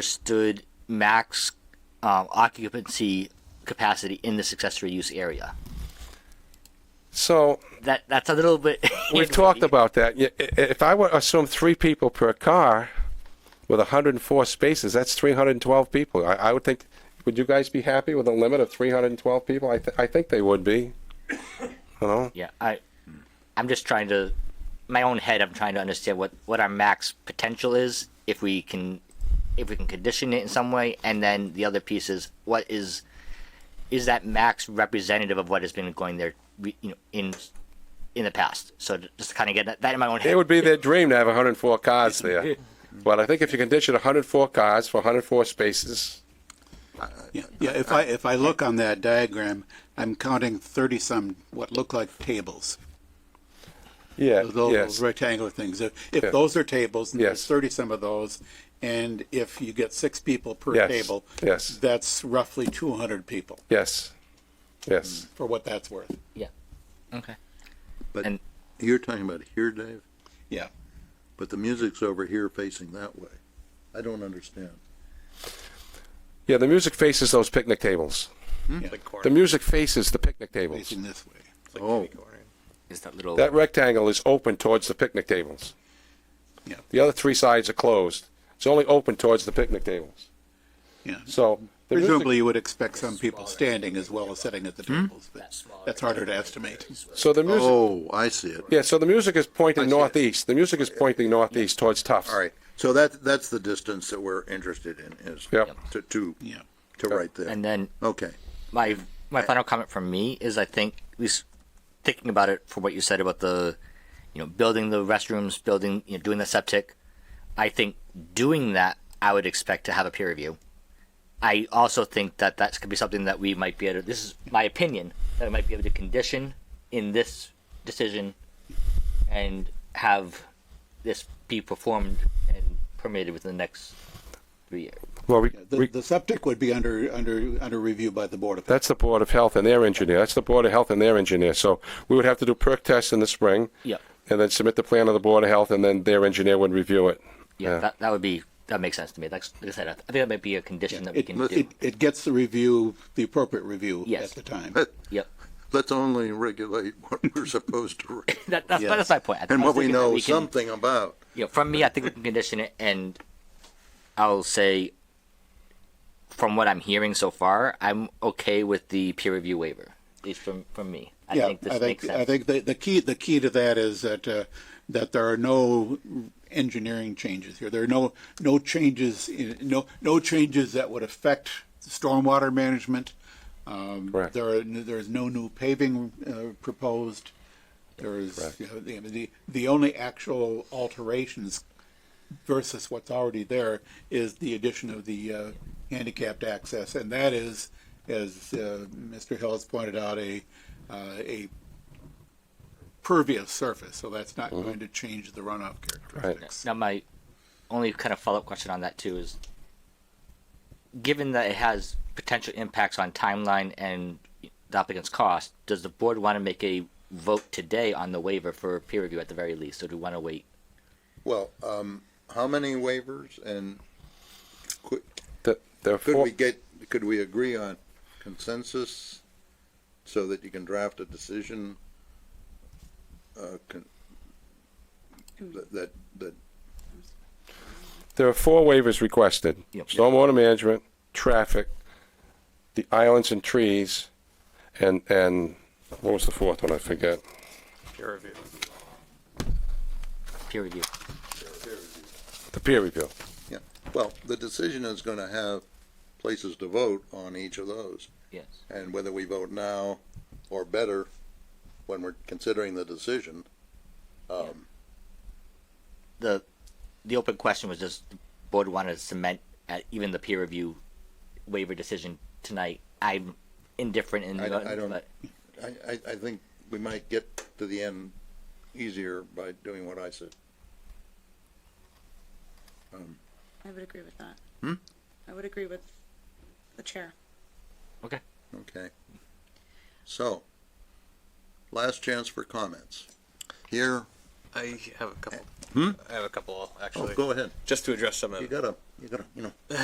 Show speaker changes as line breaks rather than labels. understood max um, occupancy capacity in this accessory use area.
So
That that's a little bit.
we've talked about that. Y- i- If I were assume three people per car with 104 spaces, that's 312 people. I, I would think, would you guys be happy with a limit of 312 people? I, th- I think they would be. You know?
Yeah, I, I'm just trying to, my own head. I'm trying to understand what what our max potential is if we can, if we can condition it in some way, and then the other piece is what is, is that max representative of what has been going there, re- you know, in, in the past. So j- just to kind of get that, that in my own head.
It would be their dream to have 104 cars there. But I think if you condition 104 cars for 104 spaces,
Yeah, yeah, if I, if I look on that diagram, I'm counting thirty-some what look like tables.
yeah,
Those
yes.
rectangular things. If, if
Yeah.
those are tables, and there's
Yes.
thirty-some of those, and if you get six people per
Yes,
table.
yes.
That's roughly two hundred people,
Yes, yes.
for what that's worth.
Yeah. Okay.
But
And-
you're talking about here, Dave,
Yeah.
but the music's over here facing that way. I don't understand.
Yeah, the music faces those picnic tables.
yeah,
The music faces the picnic tables.
Facing this way.
Oh,
Is that little?
That rectangle is open towards the picnic tables.
Yeah.
The other three sides are closed. It's only open towards the picnic tables.
Yeah.
So the music-
Presumably, you would expect some people standing as well as sitting at the tables, but that's harder to estimate.
so the music,
oh, I see it.
yeah. So the music is
I
pointing
see it.
northeast. The music is pointing northeast towards Tufts.
All right, so that, that's the distance that we're interested in is
Yep.
to, to,
Yeah.
to right there.
And then
Okay,
my my final comment from me is I think at least thinking about it for what you said about the you know building the restrooms, building you know doing the septic. I think doing that I would expect to have a peer review. I also think that that could be something that we might be able. to, This is my opinion that I might be able to condition in this decision and have this be performed and permitted within the next three years.
Well, we,
The,
we,
the septic would be under, under, under review by the Board of Health.
that's the Board of Health and their engineer. That's the Board of Health and their engineer. So we would have to do perk tests in the spring.
Yep.
And then submit the plan to the Board of Health, and then their engineer would review it.
Yeah, that, that would be that makes sense to me. That's like I said, I th- I think that might be a condition that we
It,
can do.
it, it gets the review, the appropriate review
Yes.
at the time.
but
yep,
let's only regulate what we're supposed to, reg-
that, that's, that's my point. I th-
and
I was
what we
thinking that
know
we can-
something about.
you know, from me, I think we can condition it, and I'll say, from what I'm hearing so far, I'm okay with the peer review waiver. At least from from me, I
Yeah,
think this
I
makes
think,
sense.
I think the, the key, the key to that is that, uh, that there are no engineering changes here. There are no, no changes, in- no, no changes that would affect stormwater management. Um,
Correct.
There are, there is no new paving, uh, proposed. There is, you know, the, the, the only actual alterations versus what's already there is the addition of the uh, handicapped access, and that is, as uh, Mr. Hill has pointed out, a uh, a pervious surface, so that's not going to change the runoff characteristics.
Now, my only kind of follow up question on that too is, given that it has potential impacts on timeline and the applicant's cost, does the board want to make a vote today on the waiver for peer review at the very least, or do we want to wait?
Well, um, how many waivers and could,
The, the
could
four-
we get, could we agree on consensus so that you can draft a decision? Uh, con- that, that, that,
There are four waivers requested.
Yep.
Stormwater management, traffic, the islands and trees, and, and what was the fourth one? I forget.
Peer review.
The peer review.
yeah, well, the decision is gonna have places to vote on each of those.
Yes.
And whether we vote now or better, when we're considering the decision, um,
The the open question was just the board wanted to cement at even the peer review waiver decision tonight. I'm indifferent in
I-
the
I don't-
but
I, I, I think we might get to the end easier by doing what I said.
I would agree with that. I would agree with the chair.
Okay. So, last chance for comments. Here,
I have a couple. I have a couple,
Oh,
actually.
go ahead.
Just to address some of
Oh, You gotta, you gotta, you know.